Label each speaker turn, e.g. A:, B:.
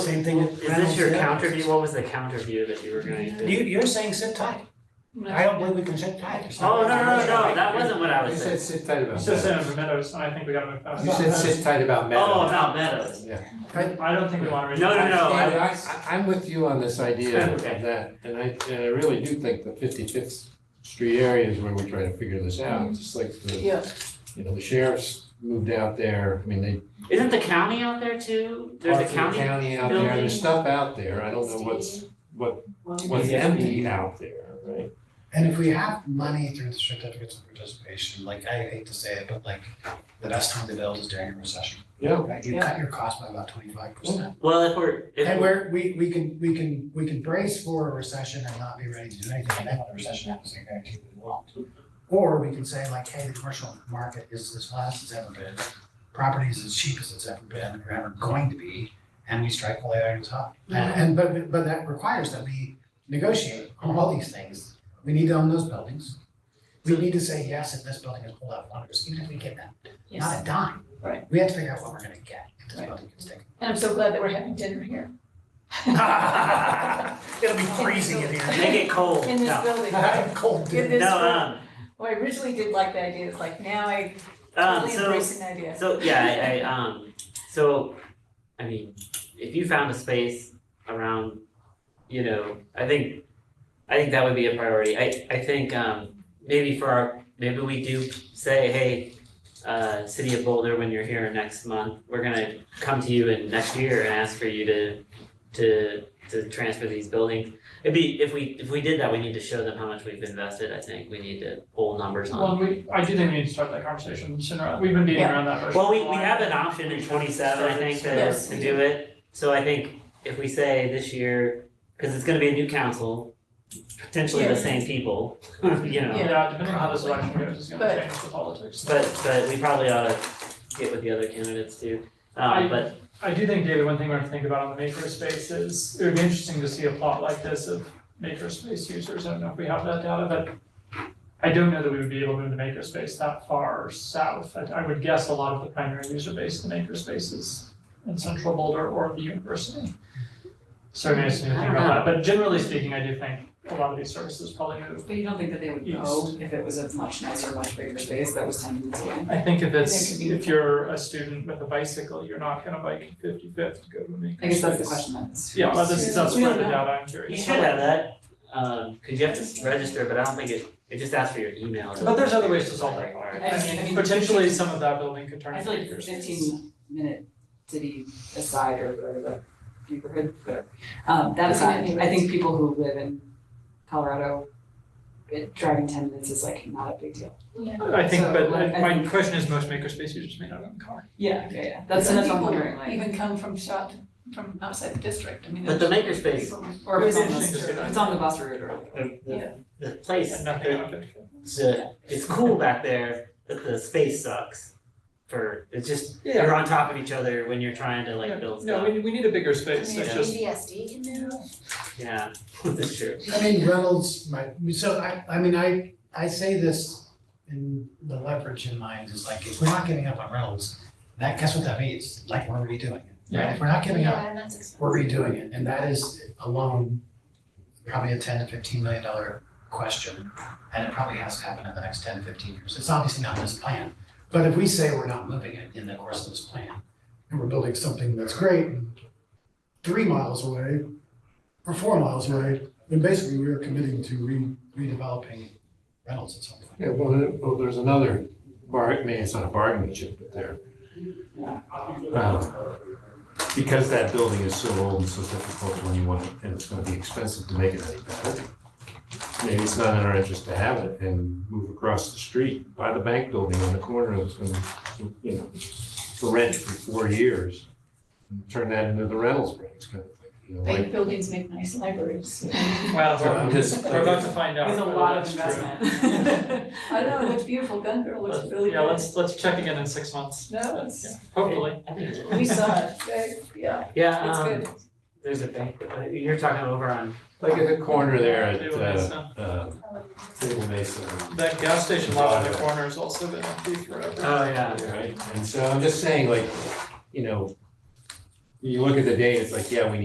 A: same thing.
B: Is this your counter view? What was the counter view that you were going to?
A: You, you're saying sit tight. I don't believe we can sit tight. It's not-
B: Oh, no, no, no, no, that wasn't what I
C: You
B: was saying.
C: said sit tight
D: You
C: about
D: said
C: Meadows.
D: Senator Meadows, and I think we gotta move past
C: You
D: that.
C: said sit tight about
B: Oh,
C: Meadows.
B: about Meadows.
C: Yeah.
D: I don't think we wanna.
B: Oh, No, no, no, I-
C: David, I, I- I'm with you on this idea of
B: Okay.
C: that, and I, and I really do think the fifty-fifth street area is where we try to figure this out, just like the,
E: Yeah,
C: you know, the sheriff's moved out there, I mean, they.
B: Isn't the county out there too?
C: parts
B: There's
C: of
B: a
C: the
B: county?
C: County out there,
B: building.
C: there's stuff out there, I don't know what's, what, what's
A: Yeah.
C: empty out there, right?
F: And if we have money through the certificates of participation, like I hate to say it, but like the best time to build is during a recession.
C: Yeah.
F: Right, you cut your cost by about twenty-five percent.
B: Well, if we're, if
F: And
B: we're,
F: we're, we, we can, we can, we can brace for a recession and not be ready to do anything, and then when a recession happens, I guarantee we won't. Or we can say like, hey, the commercial market is as fast as it's ever been, property is as cheap as it's ever been, or ever going to be, and we strike while the iron is hot. And,
E: Mm-hmm.
F: and, but, but that requires that we negotiate on all these things, we need to own those buildings. We need to say, yes, if this building is pulled out of wonders, even if we get that,
E: yes,
F: not a dime.
E: Right.
F: We have to figure out what we're gonna get if this
E: Right.
F: building gets taken.
E: and I'm so glad that we're having dinner here.
F: It'll be freezing in here.
B: make it cold,
E: In this
B: no,
E: building.
F: Cold
E: In
F: dude.
E: this
B: no,
E: room.
B: um,
E: Well, I originally did like the idea, it's like now I
B: um,
E: totally
B: so,
E: embrace an idea.
B: so, yeah, I, I, um, so, I mean, if you found a space around, you know, I think, I think that would be a priority. I, I think, um, maybe for our, maybe we do say, hey, uh, City of Boulder, when you're here next month, we're gonna come to you in next year and ask for you to, to, to transfer these buildings. It'd be, if we, if we did that, we need to show them how much we've invested, I think, we need to pull numbers on.
D: Well, we, I do think we need to start that conversation sooner, we've been beating
E: Yeah.
D: around that bush.
B: Well, we, we have an option in twenty-seven, I think, to,
E: Yes.
B: to do it. So I think if we say this year, because it's gonna be a new council, potentially the
E: Yeah.
B: same people, you know.
D: Yeah, depending on how this election goes, it's gonna
E: But-
D: change the politics.
B: But, but we probably ought to get with the other candidates too. Uh,
D: I-
B: but,
D: I do think, David, one thing we have to think about on the maker space is, it would be interesting to see a plot like this of maker space users, I don't know if we have that data, but I don't know that we would be able to move the maker space that far south, I I would guess a lot of the primary user base of the maker space is in central Boulder or the university. So maybe it's new to think about that, but generally speaking, I do think a lot of these services probably move.
G: But you don't think that they would know if it was a much nicer, much bigger space that was ten minutes away?
D: I think if
G: It
D: it's,
G: could be-
D: if you're a student with a bicycle, you're not gonna bike fifty-fifth to go to a maker
G: I guess that's the
D: space.
G: question then. is-
D: Yeah, well, this is, that's
E: We
D: where
E: don't
D: the
E: know.
D: data I'm
B: you
D: curious.
B: should have that, um, because you have to register, but I don't think it, it just asks for your email.
D: But there's other ways to solve that.
G: I mean, I mean-
D: Potentially, some of that building could turn
G: I
D: into
G: feel like
D: acres.
G: fifteen minute city aside or whatever the neighborhood, whatever. Um, that aside, I think people who live in Colorado, it, driving ten minutes is like not a big deal.
D: I think,
G: So,
D: but
G: like, I
D: my
G: think-
D: question is, most makerspaces just may not own a car.
G: Yeah, yeah, yeah. That's that's what I'm wondering, like.
E: Even come from shot, from outside the district, I mean.
B: But the
E: there's
B: makerspace-
E: people-
G: Or if it's on the,
D: Interesting to see that.
G: if it's on the bus route or.
B: The-
E: Yeah.
B: The, the place,
D: And nothing on it.
B: the, it's cool back there, but the space sucks. For, it's just,
D: Yeah.
B: you're on top of each other when you're trying to like build
D: No,
B: stuff.
D: we, we need a bigger space,
B: Maybe
D: that's just,
E: PTSD can do.
B: Yeah, that's true.
F: I mean, Reynolds might, so I, I mean, I, I say this in the leverage in mind is like, if we're not giving up on Reynolds, that, guess what that means? Like, we're redoing it. Right, if we're not giving up,
E: and that's expensive.
F: we're redoing it, and that is alone probably a ten to fifteen million dollar question. And it probably has to happen in the next 10 to 15 years. It's obviously not in this plan, but if we say we're not moving it in the course of this plan, and we're building something that's great, and three miles away, or four miles away, then basically we are committing to re- redeveloping Reynolds at some point.
C: Yeah, well, there- well, there's another bar, I mean, it's not a bargaining chip, but there. Um, Because that building is so old and so difficult when you want, it, and it's gonna be expensive to make it any better. Maybe it's not in our interest to have it and move across the street, buy the bank building on the corner, it's gonna, you know, for rent for four years. and Turn that into the rentals rates kind of thing, you know, like.
E: Bank buildings make nice libraries.
D: well,
C: I'm just-
D: we're, we're about to find out.
G: There's a
D: whether
G: lot of
D: that's true.
G: investment.
E: I know, it looks beautiful, Gun Girl looks
D: Let's-
E: really good.
D: Yeah, let's, let's check again in six months,
E: No,
D: yeah,
E: it's,
D: hopefully.
B: I think it's-
E: we saw it, right? yeah,
B: Yeah,
E: it's
B: um,
E: good.
B: there's a bank, uh, you're talking over on,
C: Like at the corner there at,
D: Table
C: uh,
D: Mesa.
C: uh, Table Mesa.
D: That gas station lot on the corner has also been empty forever.
B: oh, yeah.
C: Right, and so I'm just saying like, you know, you look at the data, it's like, yeah, we